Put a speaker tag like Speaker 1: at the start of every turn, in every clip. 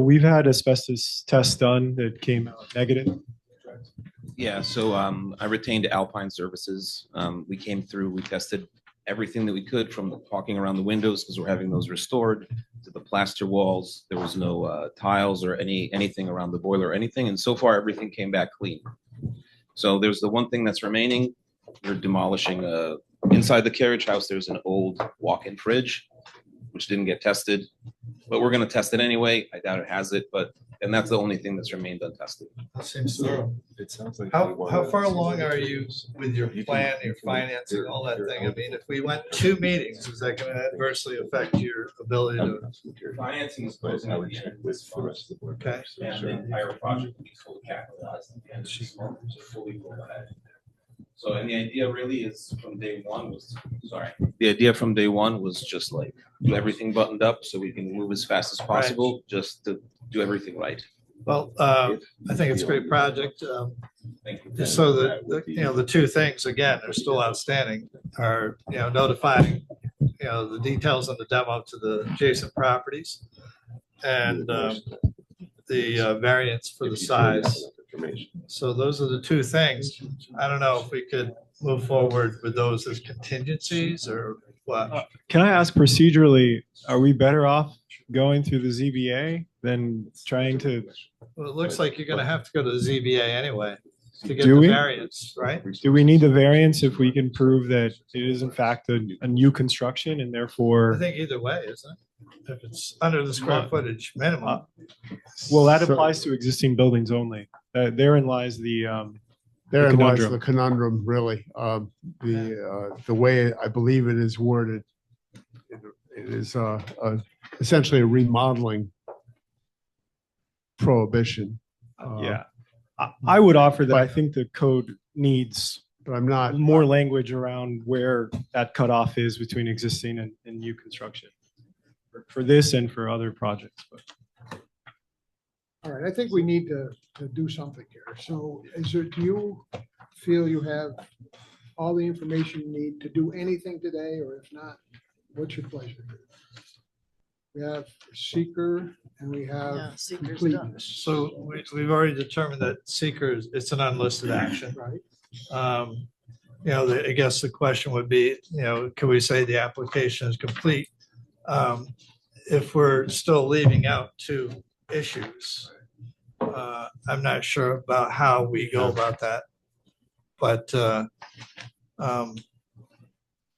Speaker 1: we've had asbestos tests done that came out negative.
Speaker 2: Yeah, so um, I retained Alpine Services. Um, we came through, we tested everything that we could from the caulking around the windows because we're having those restored to the plaster walls. There was no uh, tiles or any, anything around the boiler or anything. And so far, everything came back clean. So there's the one thing that's remaining. We're demolishing, uh, inside the carriage house, there's an old walk-in fridge, which didn't get tested. But we're gonna test it anyway. I doubt it has it, but, and that's the only thing that's remained untested.
Speaker 3: That seems thorough.
Speaker 4: It sounds like.
Speaker 3: How, how far along are you with your plan, your financing, all that thing? I mean, if we went two meetings, is that gonna adversely affect your ability to?
Speaker 2: Financing is
Speaker 4: But
Speaker 2: closing
Speaker 4: I
Speaker 2: out
Speaker 4: would
Speaker 2: the
Speaker 4: check
Speaker 2: end of
Speaker 4: with
Speaker 2: this
Speaker 4: the
Speaker 2: month.
Speaker 4: rest of the board.
Speaker 3: Okay.
Speaker 4: members,
Speaker 2: And the
Speaker 4: sure.
Speaker 2: entire project will be fully capitalized at the end of this month, so fully rolled out. So, and the idea really is from day one was, sorry. The idea from day one was just like, do everything buttoned up so we can move as fast as possible, just to do everything right.
Speaker 3: Well, uh, I think it's a great project. Um,
Speaker 2: Thank you.
Speaker 3: Just so that, that, you know, the two things, again, are still outstanding, are, you know, notifying, you know, the details on the demo to the adjacent properties and um, the uh, variance for the
Speaker 4: If you turn
Speaker 3: size.
Speaker 4: down information.
Speaker 3: So those are the two things. I don't know if we could move forward with those as contingencies or what.
Speaker 1: Can I ask procedurally, are we better off going through the ZBA than trying to,
Speaker 3: Well, it looks like you're gonna have to go to the ZBA anyway to get
Speaker 1: Do
Speaker 3: the
Speaker 1: we?
Speaker 3: variance, right?
Speaker 1: do we need the variance if we can prove that it is in fact a, a new construction and
Speaker 3: I
Speaker 1: therefore,
Speaker 3: think either way, isn't it? If it's under the square footage minimum.
Speaker 1: well, that applies to existing buildings only. Uh, therein lies the, um,
Speaker 5: Therein lies the
Speaker 1: conundrum.
Speaker 5: conundrum, really. Um, The, uh, the way I believe it is worded, it it is uh, a- essentially a remodeling prohibition. Uh,
Speaker 1: yeah. I, I would offer that I think the code needs
Speaker 5: But I'm not,
Speaker 1: more language around where that cutoff is between existing and, and new construction. for- For this and for other projects, but.
Speaker 6: All right, I think we need to, to do something here. So is there, do you feel you have all the information you need to do anything today, or if not, what's your pleasure? We have seeker and we have
Speaker 7: Yeah, seeker's done.
Speaker 6: completeness,
Speaker 3: So we, we've already determined that seekers, it's an unlisted action.
Speaker 6: right?
Speaker 3: Um, You know, the- I guess the question would be, you know, can we say the application is complete? um, If we're still leaving out two issues. Uh, I'm not sure about how we go about that. But uh, um,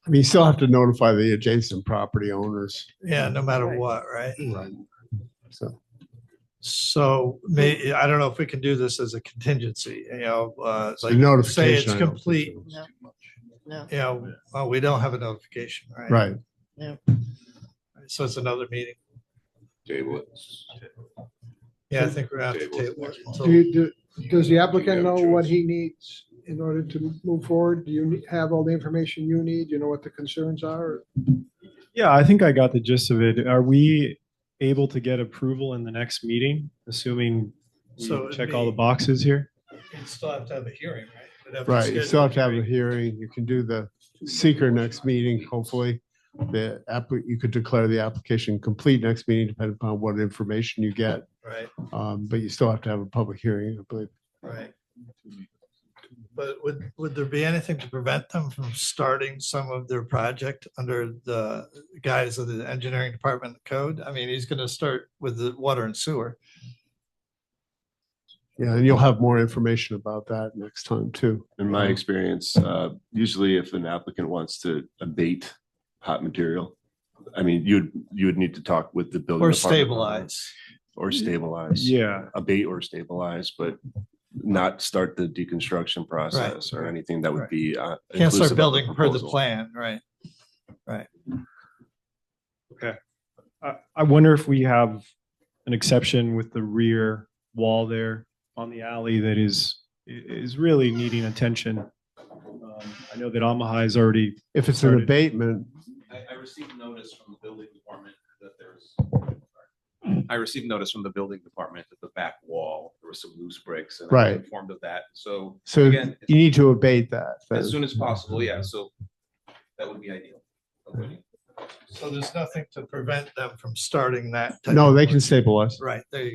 Speaker 5: I mean, you still have to notify the adjacent property owners.
Speaker 3: yeah, no matter
Speaker 7: Right.
Speaker 3: what, right?
Speaker 5: Right. So,
Speaker 3: So may, I don't know if we can do this as a contingency, you know, uh,
Speaker 5: so
Speaker 3: like say
Speaker 5: notification.
Speaker 3: it's
Speaker 5: I don't think
Speaker 3: complete,
Speaker 5: so.
Speaker 7: No, no,
Speaker 3: you know, well, we don't have a notification, right?
Speaker 5: Right.
Speaker 3: So it's another meeting.
Speaker 4: Table it.
Speaker 3: Yeah, I think we're gonna have to
Speaker 4: Table.
Speaker 3: table it until-
Speaker 6: Do you, do, does the applicant
Speaker 4: You have
Speaker 6: know
Speaker 4: a
Speaker 6: what
Speaker 4: choice.
Speaker 6: he needs in order to move forward? Do you ne- have all the information you need? You know what the concerns are?
Speaker 1: Yeah, I think I got the gist of it. Are we able to get approval in the next meeting, assuming we
Speaker 3: So it'd
Speaker 1: check all the
Speaker 3: be-
Speaker 1: boxes here?
Speaker 3: You'd still have to have a hearing, right? We'd have to
Speaker 5: Right, you
Speaker 3: schedule
Speaker 5: still have to have a
Speaker 3: hearing.
Speaker 5: hearing, you can do the seeker next meeting, hopefully. The app, you could declare the application complete next meeting, depending upon what information you get.
Speaker 3: Right,
Speaker 5: Um, but you still have to have a public hearing, I believe.
Speaker 3: right. But would, would there be anything to prevent them from starting some of their project under the guise of the engineering department code? I mean, he's gonna start with the water and sewer.
Speaker 5: Yeah, and you'll have more information about that next time too.
Speaker 4: In my experience, uh, usually if an applicant wants to abate hot material, I mean, you'd, you would need to talk with the building.
Speaker 3: Or
Speaker 4: department
Speaker 3: stabilize.
Speaker 4: Or stabilize.
Speaker 1: Yeah,
Speaker 4: Abate or stabilize, but not start the deconstruction process or anything that would
Speaker 3: Right.
Speaker 4: be. uh,
Speaker 3: Can't
Speaker 4: inclusive of
Speaker 3: start
Speaker 4: the
Speaker 3: building per the
Speaker 4: proposal.
Speaker 3: plan, right?
Speaker 1: I, I wonder if we have an exception with the rear wall there on the alley that is, is really needing attention. Um, I know that Amahai is already,
Speaker 5: If it's an
Speaker 1: Started.
Speaker 5: abatement,
Speaker 2: I, I received notice from the building department that there's. I received notice from the building department that the back wall, there were some loose bricks and I
Speaker 5: Right.
Speaker 2: was informed of that. So
Speaker 5: so
Speaker 2: Again,
Speaker 5: you need to abate that.
Speaker 2: as
Speaker 5: then.
Speaker 2: soon as possible, yeah, so that would be ideal. Okay.
Speaker 3: So there's nothing to prevent them from starting that. type
Speaker 5: No,
Speaker 3: of
Speaker 5: they
Speaker 3: work.
Speaker 5: can stabilize.
Speaker 3: Right, there you go.